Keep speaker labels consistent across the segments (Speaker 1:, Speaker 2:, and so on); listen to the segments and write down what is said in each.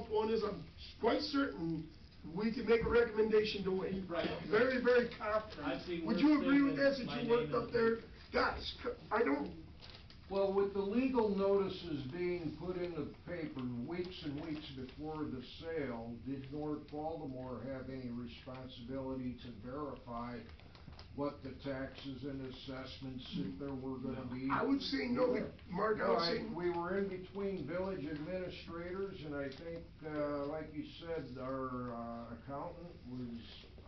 Speaker 1: because I'm quite certain we can make a recommendation to Wayne.
Speaker 2: Right.
Speaker 1: Very, very confident.
Speaker 2: I've seen
Speaker 1: Would
Speaker 2: worse
Speaker 1: you agree
Speaker 2: things
Speaker 1: with
Speaker 2: than
Speaker 1: that, since
Speaker 2: my
Speaker 1: you
Speaker 2: name
Speaker 1: worked
Speaker 2: in
Speaker 1: up
Speaker 2: the
Speaker 1: there?
Speaker 2: paper.
Speaker 1: Guys, c- I don't,
Speaker 3: Well, with the legal notices being put in the paper weeks and weeks before the sale, did North Baltimore have any responsibility to verify what the taxes and assessments, if there were gonna be?
Speaker 1: I would say no, but Mark, I
Speaker 3: No,
Speaker 1: would
Speaker 3: I-
Speaker 1: say.
Speaker 3: we were in between village administrators, and I think, uh, like you said, our uh, accountant was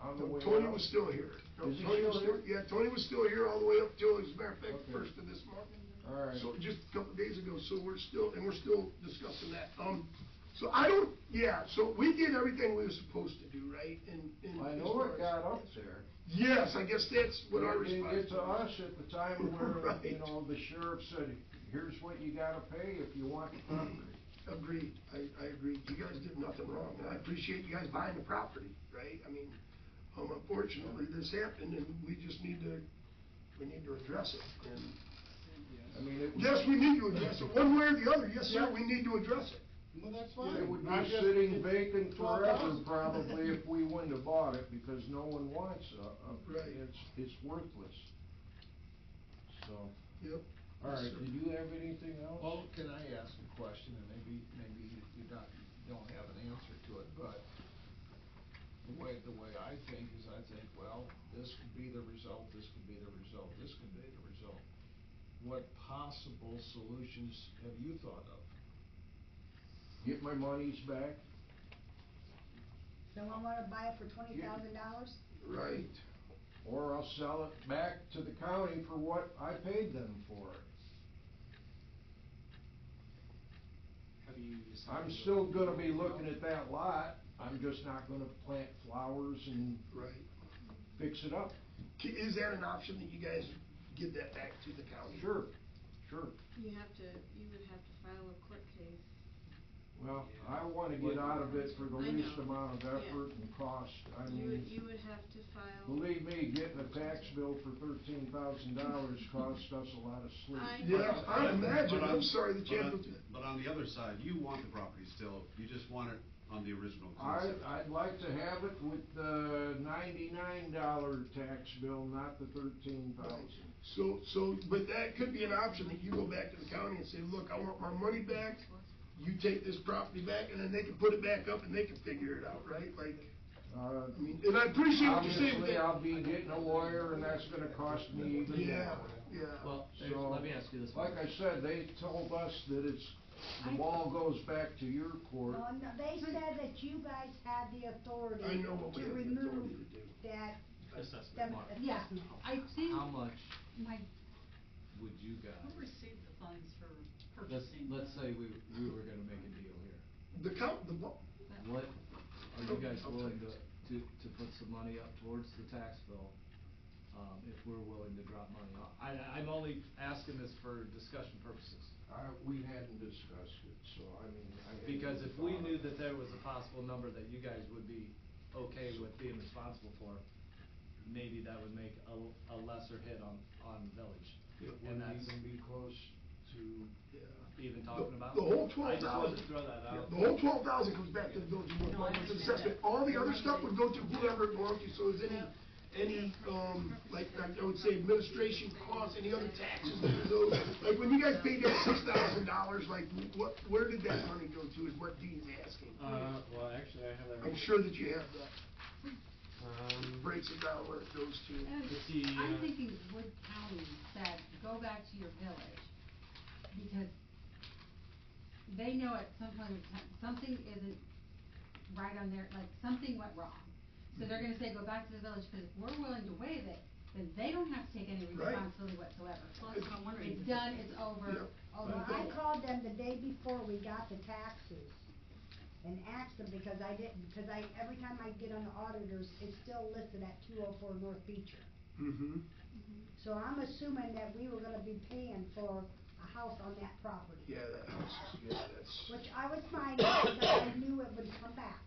Speaker 3: on the way out.
Speaker 1: Tony was still here. No,
Speaker 3: Is he
Speaker 1: Tony was
Speaker 3: still here?
Speaker 1: Yeah, Tony was still here all the way up till, as a matter of fact,
Speaker 3: Okay.
Speaker 1: first of this month.
Speaker 3: All right.
Speaker 1: So just a couple of days ago, so we're still, and we're still discussing that. Um, so I don't, yeah, so we did everything we were supposed to do, right? And- and
Speaker 3: I
Speaker 1: as
Speaker 3: know
Speaker 1: far as-
Speaker 3: it got up there.
Speaker 1: Yes, I guess that's what our
Speaker 3: It didn't
Speaker 1: response.
Speaker 3: get to us at the time where,
Speaker 1: Right.
Speaker 3: you know, the sheriff said, here's what you gotta pay if you want the property.
Speaker 1: Agreed, I, I agree. You guys did nothing wrong, and I appreciate you guys buying the property, right? I mean, um, unfortunately, this happened, and we just need to, we need to address it. And
Speaker 3: I mean, it was.
Speaker 1: Yes, we need to address it, one way or the other, yes, sir,
Speaker 4: Yeah.
Speaker 1: we need to address it.
Speaker 4: Well, that's fine.
Speaker 3: It would
Speaker 4: I'm
Speaker 3: be
Speaker 4: just-
Speaker 3: sitting vacant
Speaker 4: Twelve
Speaker 3: forever
Speaker 4: thousand.
Speaker 3: probably if we wouldn't have bought it because no one wants a, a,
Speaker 1: Right.
Speaker 3: it's, it's worthless. So,
Speaker 1: Yep.
Speaker 3: all right,
Speaker 1: Yes, sir.
Speaker 3: did you have anything else?
Speaker 5: Well, can I ask a question, and maybe, maybe you you don't, you don't have an answer to it, but the way, the way I think is I think, well, this could be the result, this could be the result, this could be the result. What possible solutions have you thought of?
Speaker 3: Get my monies back?
Speaker 6: Someone wanna buy it for twenty thousand dollars?
Speaker 1: Right.
Speaker 3: Or I'll sell it back to the county for what I paid them for.
Speaker 2: Have you decided?
Speaker 3: I'm still gonna be looking at that lot, I'm just not gonna plant flowers and
Speaker 1: Right.
Speaker 3: fix it up.
Speaker 1: K- Is that an option that you guys give that back to the county?
Speaker 3: Sure, sure.
Speaker 7: You have to, you would have to file a court case.
Speaker 3: Well, I wanna get out of it for the
Speaker 7: I
Speaker 3: least
Speaker 7: know.
Speaker 3: amount of
Speaker 7: Yeah.
Speaker 3: effort and cost, I
Speaker 7: You would, you
Speaker 3: mean,
Speaker 7: would have to file.
Speaker 3: believe me, getting a tax bill for thirteen thousand dollars cost us a lot of
Speaker 7: I-
Speaker 3: sleep.
Speaker 1: Yeah, I imagine,
Speaker 8: But on-
Speaker 1: I'm sorry that you
Speaker 8: but
Speaker 1: have
Speaker 8: on-
Speaker 1: to do that.
Speaker 8: But on the other side, you want the property still, you just want it on the original
Speaker 3: I,
Speaker 8: concept.
Speaker 3: I'd like to have it with the ninety-nine dollar tax bill, not the thirteen thousand.
Speaker 1: So, so, but that could be an option, that you go back to the county and say, look, I want my money back, you take this property back, and then they can put it back up and they can figure it out, right? Like,
Speaker 3: Uh,
Speaker 1: I mean, and I appreciate what you're saying.
Speaker 3: obviously, I'll be getting a lawyer, and that's gonna cost me even more.
Speaker 1: Yeah, yeah.
Speaker 2: Well, there's-
Speaker 3: So,
Speaker 2: let me ask you this.
Speaker 3: Like I said, they told us that it's, the ball goes back to your court.
Speaker 6: Well, no, they said that you guys had the authority
Speaker 1: I know what we
Speaker 6: to
Speaker 1: have the authority
Speaker 6: remove
Speaker 1: to do.
Speaker 6: that,
Speaker 2: Assessment
Speaker 6: them,
Speaker 2: mark.
Speaker 6: yeah.
Speaker 9: I
Speaker 5: How
Speaker 9: think
Speaker 5: much
Speaker 9: my,
Speaker 5: would you
Speaker 9: who
Speaker 5: guys,
Speaker 9: received the funds for
Speaker 5: let's,
Speaker 9: purchasing?
Speaker 5: let's
Speaker 9: the-
Speaker 5: say we, we were gonna make a deal here.
Speaker 1: The count, the, bu-
Speaker 9: that-
Speaker 5: What, are you guys willing to, to, to put some money up towards the tax bill, um, if we're willing to drop money off? I, I'm only asking this for discussion purposes.
Speaker 3: I, we hadn't discussed it, so I mean, I. hadn't
Speaker 5: Because if we
Speaker 3: thought
Speaker 5: knew
Speaker 3: of it.
Speaker 5: that there was a possible number that you guys would be okay with being responsible for, maybe that would make a, a lesser hit on, on village.
Speaker 1: Yeah,
Speaker 3: It
Speaker 5: And
Speaker 3: wouldn't
Speaker 5: that's
Speaker 3: even be close to,
Speaker 1: yeah.
Speaker 5: even talking about.
Speaker 1: The whole
Speaker 5: I
Speaker 1: twelve
Speaker 5: just wanted
Speaker 1: thousand.
Speaker 5: to throw that out.
Speaker 1: The whole twelve thousand comes back to the village of North
Speaker 9: Um, No, I
Speaker 1: Baltimore's
Speaker 9: understand
Speaker 1: assessment.
Speaker 9: that.
Speaker 1: All the other stuff would go to whoever it belongs to, so is any, any, um, like, like I would say administration costs, any other taxes that are owed. Like, when you guys paid that six thousand dollars, like, what, where did that money go to, is what Dean's asking.
Speaker 2: Uh, well, actually, I have that.
Speaker 1: I'm sure that you have that,
Speaker 2: Um,
Speaker 1: breaks it down where it goes to.
Speaker 9: And
Speaker 2: It's the, uh,
Speaker 9: I'm thinking Wood County said, go back to your village, because they know at some point in time, something isn't right on their, like, something went wrong. So they're gonna say, go back to the village, because if we're willing to waive it, then they don't have to take any
Speaker 1: Right.
Speaker 9: responsibility whatsoever.
Speaker 7: Well, that's what I'm wondering.
Speaker 9: It's done, it's over,
Speaker 1: Yep.
Speaker 9: over.
Speaker 6: Well, I called them the day before we got the taxes and asked them because I didn't, because I, every time I get on the auditors, it's still listed at two oh four North Beecher.
Speaker 1: Mm-hmm.
Speaker 6: So I'm assuming that we were gonna be paying for a house on that property.
Speaker 1: Yeah, that house, is- yeah, that's,
Speaker 6: Which I was fine with, because I knew it would come back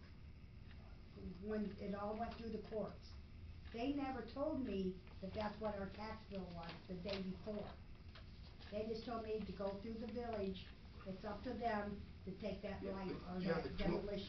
Speaker 6: when it all went through the courts. They never told me that that's what our tax bill was the day before. They just told me to go through the village, it's up to them to take that light or
Speaker 1: Yeah, the
Speaker 6: that
Speaker 1: twelve-
Speaker 6: demolition.